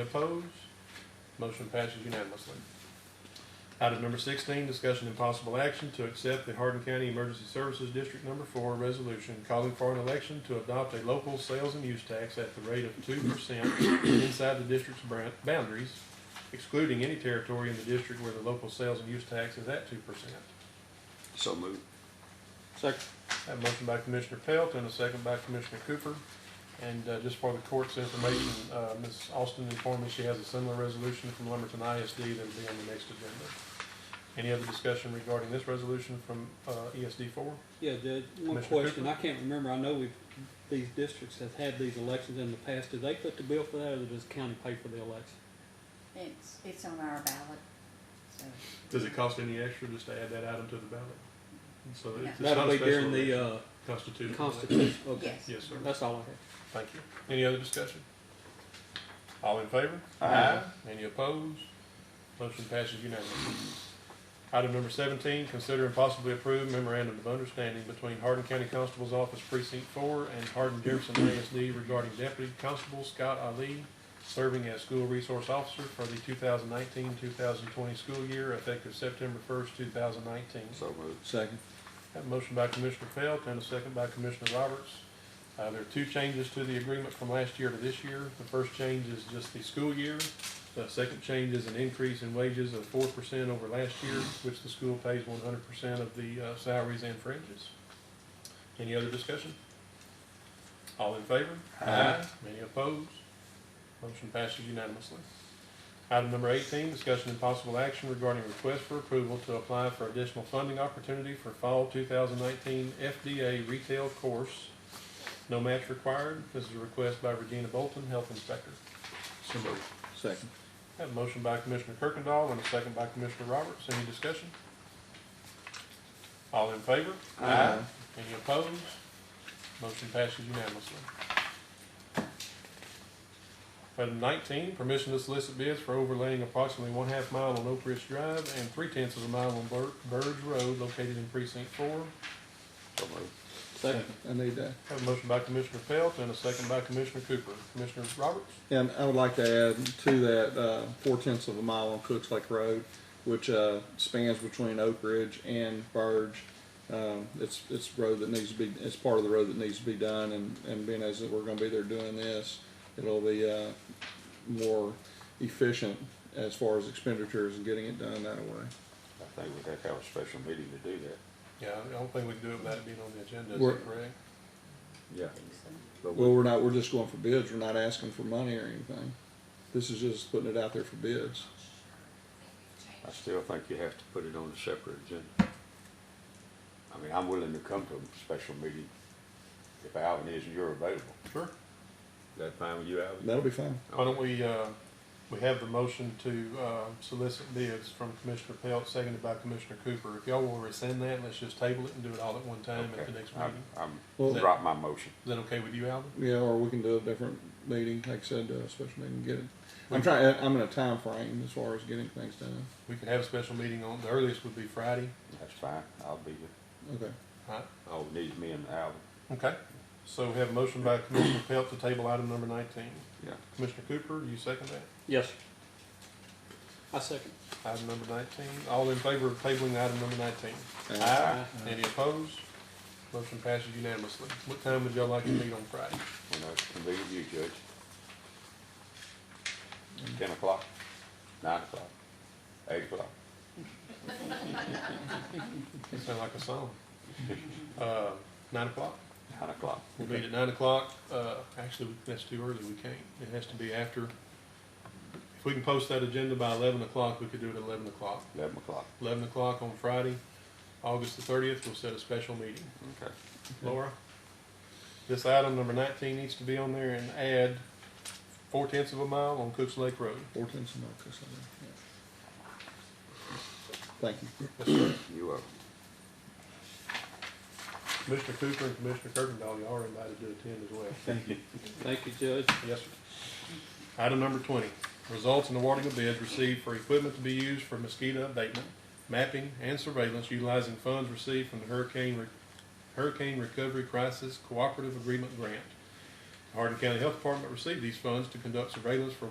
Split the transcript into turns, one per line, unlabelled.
opposed? Motion passes unanimously. Item number sixteen, discussion and possible action to accept the Hardin County Emergency Services District Number Four resolution calling for an election to adopt a local sales and use tax at the rate of two percent inside the district's bran- boundaries, excluding any territory in the district where the local sales and use tax is at two percent.
So moved.
Second. Have a motion by Commissioner Pelt and a second by Commissioner Cooper. And uh, just for the court's information, uh, Ms. Austin informed me she has a similar resolution from Lumberton ISD that'll be on the next agenda. Any other discussion regarding this resolution from uh, ESD four?
Yeah, Judge, one
Commissioner
question,
Cooper?
I can't remember, I know we've, these districts have had these elections in the past, do they put the bill for that, or does the county pay for the election?
It's, it's on our ballot, so.
Does it cost any extra just to add that item to the ballot? So it's it's
That'll
not a
be
special
during
election.
the, uh,
Constitutional. election.
constitution, okay,
Yes.
Yes, sir.
that's all I have.
Thank you. Any other discussion? All in favor?
Aye.
Any opposed? Motion passes unanimously. Item number seventeen, consider and possibly approve memorandum of understanding between Hardin County Constable's Office Precinct Four and Hardin Jefferson ASD regarding Deputy Constable Scott Ali serving as school resource officer for the 2019-2020 school year effective September first, two thousand nineteen.
So moved.
Second.
Have a motion by Commissioner Pelt and a second by Commissioner Roberts. Uh, there are two changes to the agreement from last year to this year. The first change is just the school year. The second change is an increase in wages of four percent over last year, which the school pays one hundred percent of the, uh, salaries and fringes. Any other discussion? All in favor?
Aye.
Any opposed? Motion passes unanimously. Item number eighteen, discussion and possible action regarding request for approval to apply for additional funding opportunity for fall two thousand nineteen FDA retail course. No match required. This is a request by Regina Bolton, Health Inspector.
So moved.
Second.
Have a motion by Commissioner Kirkendall and a second by Commissioner Roberts. Any discussion? All in favor?
Aye.
Any opposed? Motion passes unanimously. Item nineteen, permission to solicit bids for overlaying approximately one half mile on Oak Ridge Drive and three tenths of a mile on Bur- Burge Road located in precinct four.
So moved.
Second. I need that.
Have a motion by Commissioner Pelt and a second by Commissioner Cooper. Commissioner Roberts?
And I would like to add to that, uh, four tenths of a mile on Cooks Lake Road, which, uh, spans between Oak Ridge and Burge. Um, it's, it's a road that needs to be, it's part of the road that needs to be done and, and being as that we're gonna be there doing this, it'll be, uh, more efficient as far as expenditures and getting it done that way.
I think we'd have to have a special meeting to do that.
Yeah, I don't think we can do it without it being on the agenda, is
We're-
that correct?
Yeah.
I think so.
But
Well,
we,
we're not, we're just going for bids, we're not asking for money or anything. This is just putting it out there for bids.
I still think you have to put it on a separate agenda. I mean, I'm willing to come to a special meeting if Alvin is and you're available.
Sure.
Is that fine with you, Alvin?
That'll be fine.
Why don't we, uh, we have the motion to, uh, solicit bids from Commissioner Pelt, seconded by Commissioner Cooper. If y'all will rescind that, let's just table it and do it all at one time at the
Okay.
next
I'm-
meeting.
I'm,
Well-
drop my motion.
Is that okay with you, Alvin?
Yeah, or we can do a different meeting, like I said, do a special meeting, and get it. I'm trying, I'm in a time frame as far as getting things done.
We could have a special meeting on, the earliest would be Friday.
That's fine. I'll be here.
Okay.
All right,
All we need is me and Alvin.
okay. So we have a motion by Commissioner Pelt to table item number nineteen.
Yeah.
Commissioner Cooper, you second that?
Yes. sir. I second.
Item number nineteen, all in favor of tabling item number nineteen?
Ah.
Aye.
Any opposed? Motion passes unanimously. What time would y'all like to meet on Friday?
When I convene with you, Judge. Ten o'clock, nine o'clock, eight o'clock.
It sounds like a song. Uh, nine o'clock?
Nine o'clock.
We'll meet at nine o'clock. Uh, actually, that's too early. We can't. It has to be after. If we can post that agenda by eleven o'clock, we could do it at eleven o'clock.
Eleven o'clock,
Eleven o'clock on Friday, August the thirtieth, we'll set a special meeting.
okay.
Laura, this item number nineteen needs to be on there and add four tenths of a mile on Cooks Lake Road.
Four tenths of a mile, 'cause I know, yeah. Thank you.
You are,
Commissioner Cooper and Commissioner Kirkendall, y'all are invited to attend as well.
Thank you, Judge.
Yes, sir. Item number twenty, results in awarding of bids received for equipment to be used for mosquito abatement, mapping, and surveillance utilizing funds received from the Hurricane, Re- Hurricane Recovery Crisis Cooperative Agreement Grant. Hardin County Health Department received these funds to conduct surveillance for